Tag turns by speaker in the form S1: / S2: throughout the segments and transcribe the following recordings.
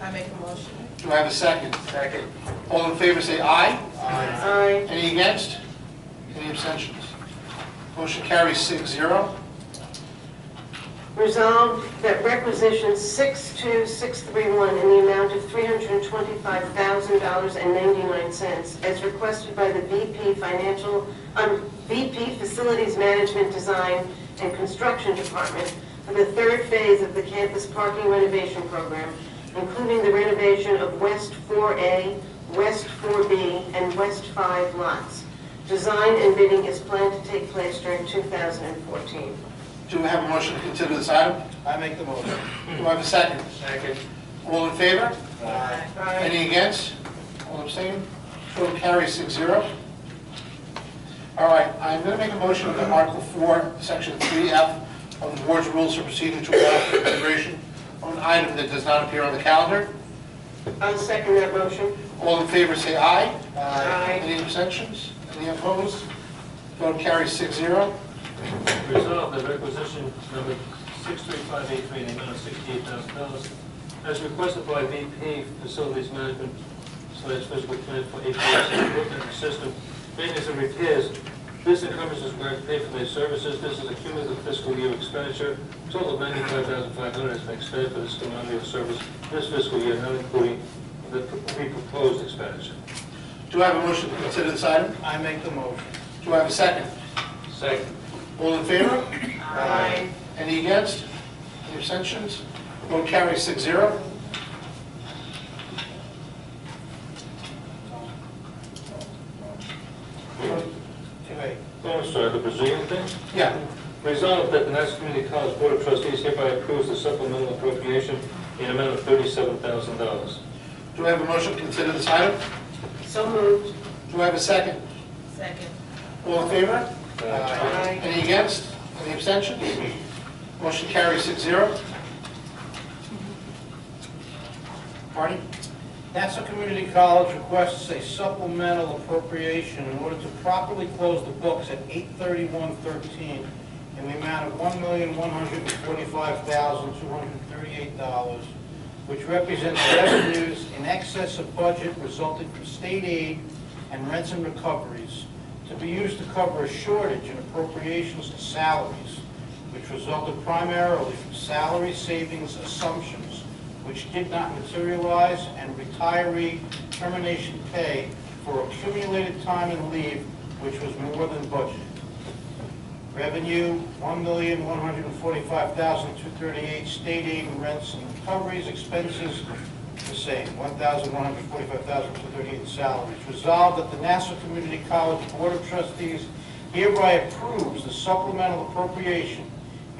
S1: I make a motion.
S2: Do I have a second? Second. All in favor, say aye.
S3: Aye.
S2: Any against? Any abstentions? Motion carries six zero.
S3: Resolved that requisition 62631 in the amount of $325,000.99 as requested by the VP Financial, um, VP Facilities Management Design and Construction Department for the third phase of the campus parking renovation program, including the renovation of West 4A, West 4B, and West 5 lots. Design and bidding is planned to take place during 2014.
S2: Do we have a motion to consider this item?
S4: I make the motion.
S2: Do I have a second?
S4: Second.
S2: All in favor?
S4: Aye.
S2: Any against? All abstaining? Motion carries six zero. All right, I'm going to make a motion under Article 4, Section 3F of the Board's Rules for Proceeding to allow for consideration of an item that does not appear on the calendar.
S3: I'll second that motion.
S2: All in favor, say aye.
S3: Aye.
S2: Any abstentions? Any opposed? Vote carries six zero.
S5: Resolved that requisition number 63583 in the amount of $68,000 as requested by VP Facilities Management slash Physical Plant for APS improvement system maintenance and repairs. This encompasses grant pay for their services. This is a cumulative fiscal year expenditure. Total of $95,500 has been expended for this cumulative service this fiscal year, not including the proposed expenditure.
S2: Do I have a motion to consider this item?
S4: I make the motion.
S2: Do I have a second?
S5: Second.
S2: All in favor?
S3: Aye.
S2: Any against? Any abstentions? Vote carries six zero.
S4: Wait.
S5: Oh, I'm sorry, the Brazilian thing?
S2: Yeah.
S5: Resolved that the Nassau Community College Board of Trustees hereby approves the supplemental appropriation in amount of thirty-seven thousand dollars.
S2: Do I have a motion to consider this item?
S3: So moved.
S2: Do I have a second?
S1: Second.
S2: All in favor?
S3: Aye.
S2: Any against? Any abstentions? Motion carries six zero. Marty?
S4: Nassau Community College requests a supplemental appropriation in order to properly close the books at 8/31/13 in the amount of $1,145,238, which represents revenues in excess of budget resulting from state aid and rents and recoveries to be used to cover a shortage in appropriations to salaries, which resulted primarily from salary savings assumptions which did not materialize, and retiree termination pay for accumulated time and leave, which was more than budgeted. Revenue, $1,145,238, state aid and rents and recoveries, expenses, the same, $1,145,238 salaries. Resolved that the Nassau Community College Board of Trustees hereby approves the supplemental appropriation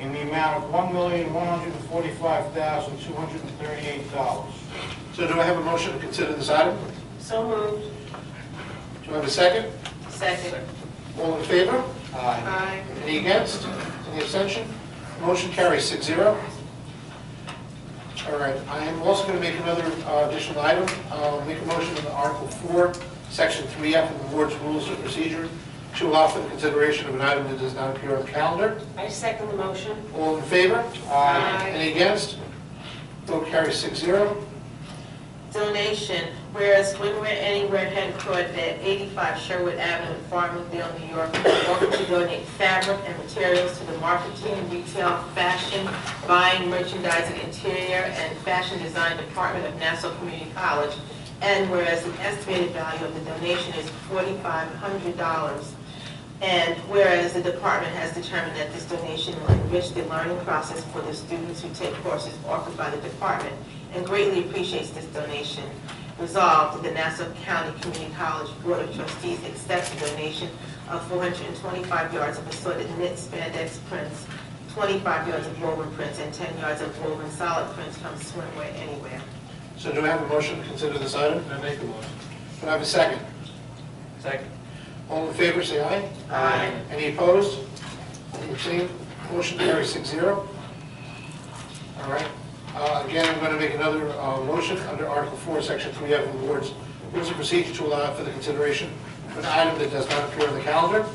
S4: in the amount of $1,145,238.
S2: So do I have a motion to consider this item?
S3: So moved.
S2: Do I have a second?
S3: Second.
S2: All in favor?
S4: Aye.
S3: Aye.
S2: Any against? Any abstention? Motion carries six zero. All right, I am also going to make another uh, additional item. Uh, Make a motion on Article 4, Section 3F of the Board's Rules of Procedure to allow for the consideration of an item that does not appear on the calendar.
S3: I second the motion.
S2: All in favor?
S3: Aye.
S2: Any against? Vote carries six zero.
S1: Donation, whereas When We're Anywhere headquartered at 85 Sherwood Avenue in Farmingdale, New York, offered to donate fabric and materials to the marketing, retail, fashion, buying, merchandising, interior, and fashion design department of Nassau Community College. And whereas the estimated value of the donation is $4,500. And whereas the department has determined that this donation will enrich the learning process for the students who take courses offered by the department and greatly appreciates this donation. Resolved, that the Nassau County Community College Board of Trustees accepts the donation of 425 yards of assorted knit spandex prints, 25 yards of woven prints, and 10 yards of woven solid prints from Swimwear Anywhere.
S2: So do I have a motion to consider this item?
S5: I make a motion.
S2: Do I have a second?
S5: Second.
S2: All in favor, say aye.
S1: Aye.
S2: Any opposed? Any abstained? Motion carries six zero. All right. Uh, Again, I'm going to make another uh, motion under Article 4, Section 3F of the Board's Rules of Procedure to allow for the consideration of an item that does not appear on the calendar.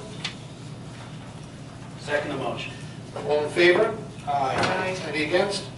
S4: Second motion.
S2: All in favor?
S4: Aye.
S2: Any against?